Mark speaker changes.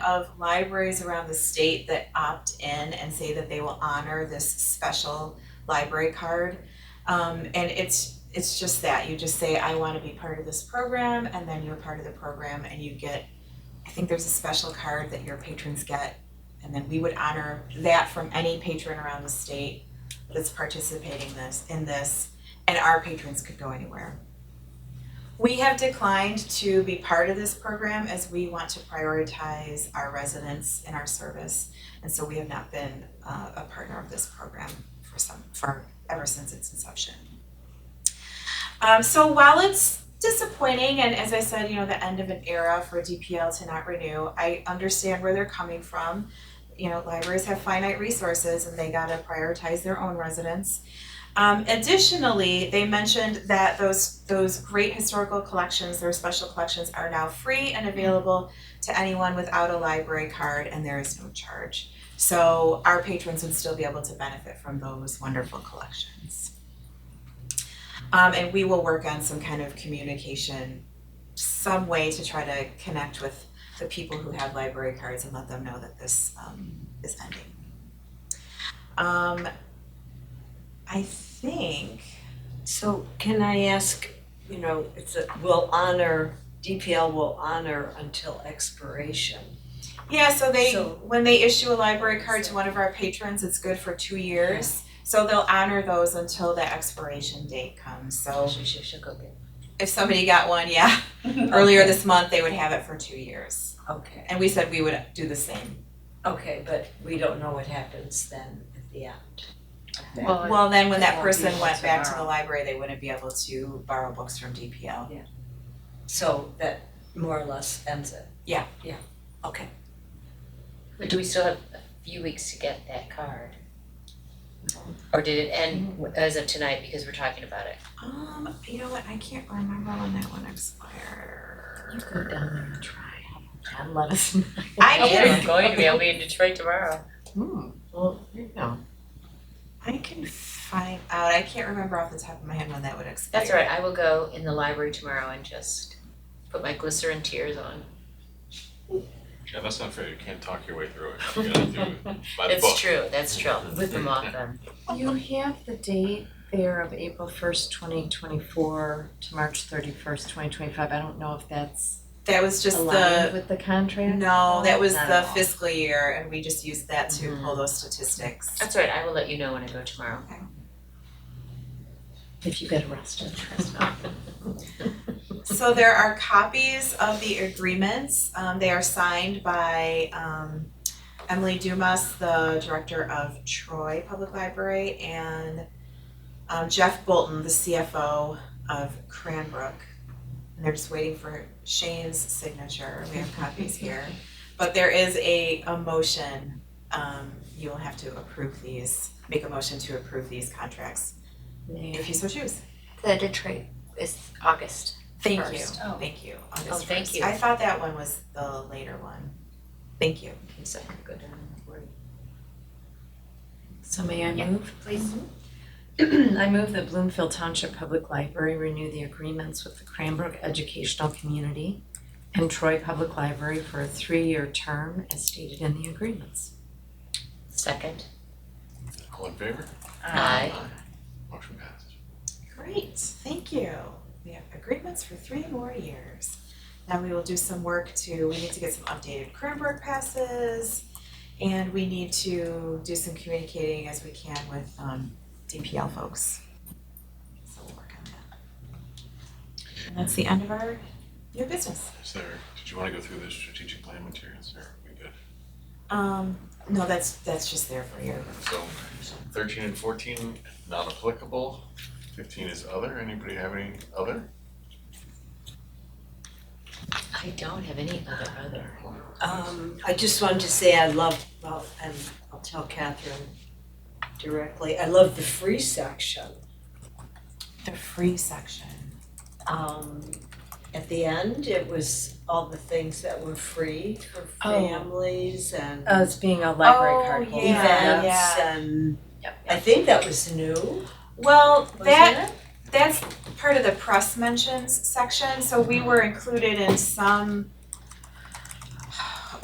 Speaker 1: of libraries around the state that opt in and say that they will honor this special library card. Um, and it's, it's just that, you just say, I wanna be part of this program, and then you're part of the program and you get, I think there's a special card that your patrons get, and then we would honor that from any patron around the state that's participating this, in this, and our patrons could go anywhere. We have declined to be part of this program as we want to prioritize our residents in our service. And so we have not been uh, a partner of this program for some, for, ever since its inception. Um, so while it's disappointing, and as I said, you know, the end of an era for DPL to not renew, I understand where they're coming from. You know, libraries have finite resources and they gotta prioritize their own residents. Um, additionally, they mentioned that those those great historical collections, their special collections, are now free and available to anyone without a library card, and there is no charge. So our patrons would still be able to benefit from those wonderful collections. Um, and we will work on some kind of communication, some way to try to connect with the people who have library cards and let them know that this um, is ending. Um, I think
Speaker 2: So can I ask, you know, it's a, will honor, DPL will honor until expiration.
Speaker 1: Yeah, so they,
Speaker 2: So-
Speaker 1: when they issue a library card to one of our patrons, it's good for two years. So they'll honor those until the expiration date comes, so
Speaker 2: She should, should go get.
Speaker 1: if somebody got one, yeah, earlier this month, they would have it for two years.
Speaker 2: Okay,
Speaker 1: And we said we would do the same.
Speaker 2: okay, but we don't know what happens then at the end.
Speaker 3: Well,
Speaker 1: Well, then when
Speaker 3: it
Speaker 1: that
Speaker 3: won't
Speaker 1: person
Speaker 3: be
Speaker 1: went back to the
Speaker 3: tomorrow.
Speaker 1: library, they wouldn't be able to borrow books from DPL.
Speaker 2: So that more or less ends it.
Speaker 1: Yeah.
Speaker 2: Yeah, okay.
Speaker 3: But do we still have a few weeks to get that card? Or did it end w- as of tonight because we're talking about it?
Speaker 1: Um, you know what, I can't remember when that one expired.
Speaker 3: go down there and
Speaker 1: try.
Speaker 3: And let us
Speaker 1: I
Speaker 3: We're
Speaker 1: can,
Speaker 3: going to be, I'll be in Detroit tomorrow.
Speaker 4: Hmm. Well, there you go.
Speaker 1: I can find out, I can't remember off the top of my head when that would expire.
Speaker 3: That's all right, I will go in the library tomorrow and just put my glycerin tears on.
Speaker 5: Yeah, that's not fair. You can't talk your way through it. You gotta do it by the book.
Speaker 3: It's true, that's true, with them off them.
Speaker 4: You have the date there of April first, twenty twenty-four to March thirty-first, twenty twenty-five. I don't know if that's
Speaker 1: That was just
Speaker 4: aligned
Speaker 1: the,
Speaker 4: with the contract.
Speaker 1: no, that was
Speaker 4: Not
Speaker 1: the
Speaker 4: at all. Mm-hmm.
Speaker 1: fiscal year and we just used that to pull those statistics.
Speaker 3: That's all right, I will let you know when I go tomorrow.
Speaker 4: If you get arrested.
Speaker 1: So there are copies of the agreements, um, they are signed by, um, Emily Dumas, the director of Troy Public Library, and, um, Jeff Bolton, the CFO of Cranbrook. And they're just waiting for Shane's signature, we have copies here, but there is a, a motion, um, you will have to approve these, make a motion to approve these contracts, if you so choose.
Speaker 6: The Detroit is August.
Speaker 1: Thank you,
Speaker 6: First.
Speaker 3: Oh.
Speaker 1: thank you, August
Speaker 3: Oh, thank
Speaker 1: first.
Speaker 3: you.
Speaker 1: I thought that one was the later one. Thank you.
Speaker 3: So I can go down and worry.
Speaker 4: So may I
Speaker 6: Yeah.
Speaker 4: move? Mm-hmm.
Speaker 6: Please.
Speaker 4: I move that Bloomfield Township Public Library renew the agreements with the Cranbrook Educational Community and Troy Public Library for a three-year term as stated in the agreements.
Speaker 3: Second,
Speaker 5: All in favor?
Speaker 3: aye.
Speaker 5: Motion passed.
Speaker 1: Great, thank you. We have agreements for three more years. Now we will do some work to, we need to get some updated Cranbrook passes. And we need to do some communicating as we can with um DPL folks. So we'll work on that. And that's the end of our new business.
Speaker 5: Is there, did you wanna go through the strategic plan materials or are we good?
Speaker 1: Um, no, that's that's just there for your
Speaker 5: So thirteen and fourteen, not applicable. Fifteen is other. Anybody have any other?
Speaker 3: I don't have any other other.
Speaker 2: Um, I just wanted to say I love, well, and I'll tell Catherine directly, I love the free section.
Speaker 1: the free section.
Speaker 2: Um, at the end, it was all the things that were free for
Speaker 4: Oh.
Speaker 2: families and
Speaker 4: As being a library
Speaker 1: Oh,
Speaker 4: card holder.
Speaker 1: yeah.
Speaker 2: events
Speaker 1: yeah.
Speaker 2: and
Speaker 4: Yep.
Speaker 2: I think that was new,
Speaker 1: Well,
Speaker 2: wasn't
Speaker 1: that
Speaker 2: it?
Speaker 1: that's part of the press mentions section, so we were included in some